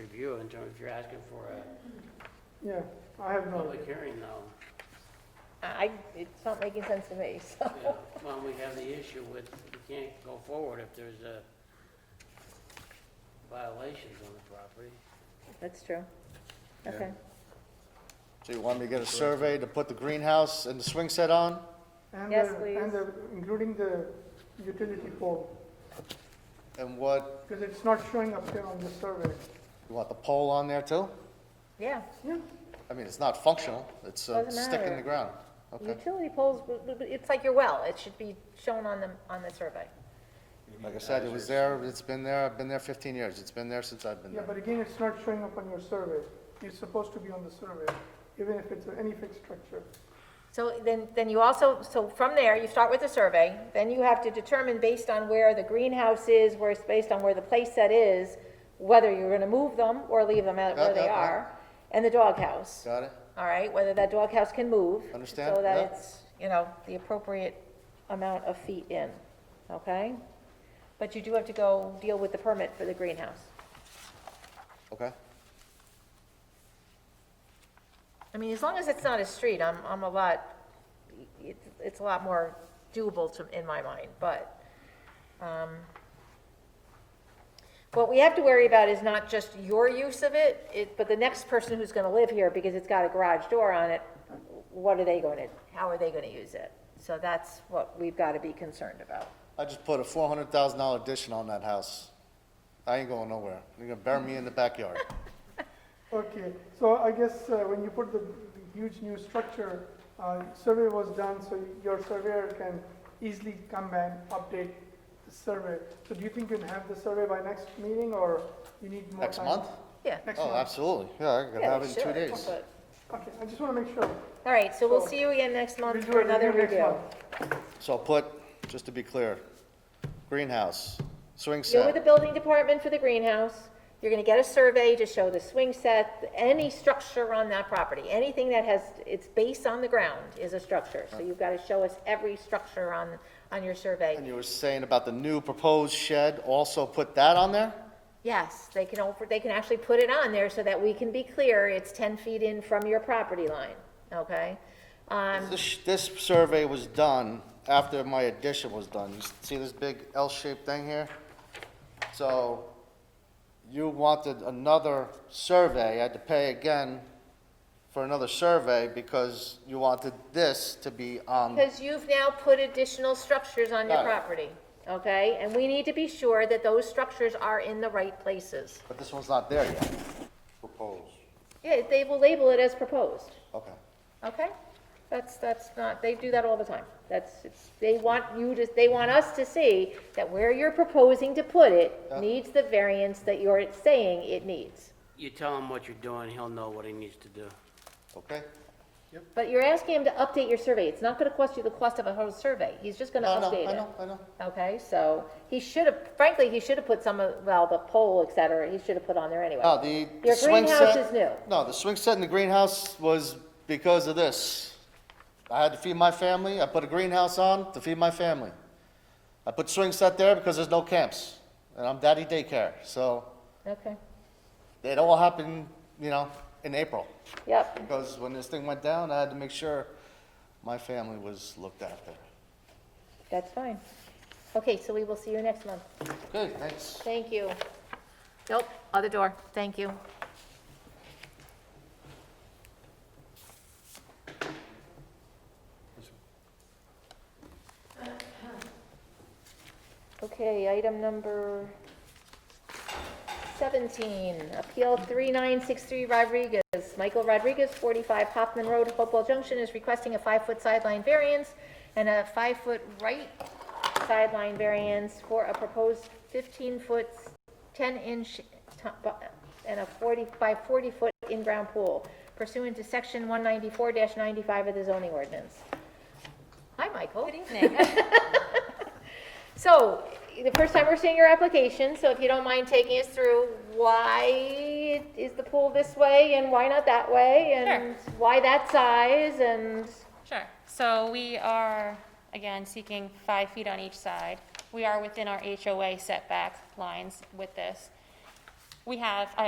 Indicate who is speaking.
Speaker 1: review in terms, if you're asking for a
Speaker 2: Yeah, I have no,
Speaker 1: public hearing though.
Speaker 3: I, it's not making sense to me, so.
Speaker 1: Yeah, Well, we have the issue with, we can't go forward if there's uh violations on the property.
Speaker 3: That's true.
Speaker 4: Yeah.
Speaker 3: Okay,
Speaker 4: So you want me to get a survey to put the greenhouse and the swing set on?
Speaker 2: and
Speaker 3: Yes,
Speaker 2: the,
Speaker 3: please.
Speaker 2: and the, including the utility pole,
Speaker 4: And what,
Speaker 2: because it's not showing up there on the survey.
Speaker 4: you want the pole on there too?
Speaker 3: yeah.
Speaker 2: Yeah,
Speaker 4: I mean, it's not functional, it's a
Speaker 3: Doesn't
Speaker 4: stick in
Speaker 3: matter.
Speaker 4: the ground. Okay,
Speaker 3: Utility poles, w- w- w- it's like your well, it should be shown on the, on the survey.
Speaker 4: like I said, it was there, it's been there, I've been there fifteen years, it's been there since I've been
Speaker 2: yeah,
Speaker 4: there.
Speaker 2: but again, it's not showing up on your survey. It's supposed to be on the survey, even if it's any fixed structure.
Speaker 3: So then, then you also, so from there, you start with the survey, then you have to determine based on where the greenhouse is, where it's based on where the place set is, whether you're gonna move them or leave them at where
Speaker 4: Yeah, yeah,
Speaker 3: they
Speaker 4: yeah.
Speaker 3: are, and the doghouse,
Speaker 4: Got it?
Speaker 3: all right, whether that doghouse can move.
Speaker 4: Understand,
Speaker 3: So that
Speaker 4: yeah.
Speaker 3: it's, you know, the appropriate amount of feet in, okay? But you do have to go deal with the permit for the greenhouse.
Speaker 4: Okay,
Speaker 3: I mean, as long as it's not a street, I'm, I'm a lot, it's, it's a lot more doable to, in my mind, but, um, what we have to worry about is not just your use of it, it, but the next person who's gonna live here, because it's got a garage door on it, what are they gonna, how are they gonna use it? So that's what we've gotta be concerned about.
Speaker 4: I just put a four hundred thousand dollar addition on that house. I ain't going nowhere, you're gonna bury me in the backyard.
Speaker 2: Okay, so I guess uh, when you put the huge new structure, uh, survey was done, so your surveyor can easily come and update the survey. So do you think you can have the survey by next meeting, or you need more
Speaker 4: Next
Speaker 2: time?
Speaker 4: month?
Speaker 3: Yeah.
Speaker 2: Next
Speaker 4: Oh,
Speaker 2: month?
Speaker 4: absolutely, yeah, I can
Speaker 3: Yeah,
Speaker 4: have it in two
Speaker 3: sure,
Speaker 4: days.
Speaker 3: but-
Speaker 2: Okay, I just want to make sure.
Speaker 3: All right, so we'll
Speaker 2: So,
Speaker 3: see you again next
Speaker 2: We'll
Speaker 3: month
Speaker 2: do
Speaker 3: for
Speaker 2: a
Speaker 3: another
Speaker 2: next
Speaker 3: review.
Speaker 2: month.
Speaker 4: So I'll put, just to be clear, greenhouse, swing
Speaker 3: You're with the
Speaker 4: set,
Speaker 3: building department for the greenhouse, you're gonna get a survey to show the swing set, any structure on that property, anything that has its base on the ground is a structure. So you've gotta show us every structure on, on your
Speaker 4: and
Speaker 3: survey.
Speaker 4: you were saying about the new proposed shed, also put that on there?
Speaker 3: Yes, they can, over- they can actually put it on there so that we can be clear, it's ten feet in from your property line, okay? Um,
Speaker 4: This, this survey was done after my addition was done. You see this big L-shaped thing here? So you wanted another survey, I had to pay again for another survey because you wanted this to be on,
Speaker 3: Because you've now put additional structures on your
Speaker 4: Got it.
Speaker 3: property, okay? And we need to be sure that those structures are in the right places.
Speaker 4: but this one's not there yet. Proposed.
Speaker 3: Yeah, they will label it as proposed.
Speaker 4: Okay.
Speaker 3: Okay, that's, that's not, they do that all the time. That's, it's, they want you to, they want us to see that where you're proposing to put it
Speaker 4: Yeah.
Speaker 3: needs the variance that you're saying it needs.
Speaker 1: You tell him what you're doing, he'll know what he needs to do.
Speaker 4: Okay?
Speaker 3: But you're asking him to update your survey. It's not gonna cost you the cost of a whole survey. He's just gonna
Speaker 4: No, no,
Speaker 3: update
Speaker 4: I
Speaker 3: it.
Speaker 4: know, I know.
Speaker 3: Okay, so he should have, frankly, he should have put some of, well, the pole, et cetera, he should have put on there anyway.
Speaker 4: No, Oh, the the
Speaker 3: Your
Speaker 4: swing
Speaker 3: greenhouse
Speaker 4: set-
Speaker 3: is new.
Speaker 4: No, the swing set in the greenhouse was because of this. I had to feed my family, I put a greenhouse on to feed my family. I put swing set there because there's no camps, and I'm daddy daycare, so
Speaker 3: Okay,
Speaker 4: it all happened, you know, in April.
Speaker 3: yep,
Speaker 4: Because when this thing went down, I had to make sure my family was looked after.
Speaker 3: that's fine. Okay, so we will see you next month.
Speaker 4: Okay, thanks.
Speaker 3: Thank you. Nope, other door, thank you. Okay, item number 17, Appeal 3963 Rodriguez. Michael Rodriguez, 45 Hoffman Road, Hopewell Junction, is requesting a five-foot sideline variance and a five-foot right sideline variance for a proposed 15-foot, 10-inch, and a 40, by 40-foot in-ground pool pursuant to Section 194-95 of the zoning ordinance. Hi, Michael. Good evening. So, the first time we're seeing your application, so if you don't mind taking us through why is the pool this way and why not that way? And why that size and,
Speaker 5: Sure. So we are, again, seeking five feet on each side. We are within our HOA setback lines with this. We have, I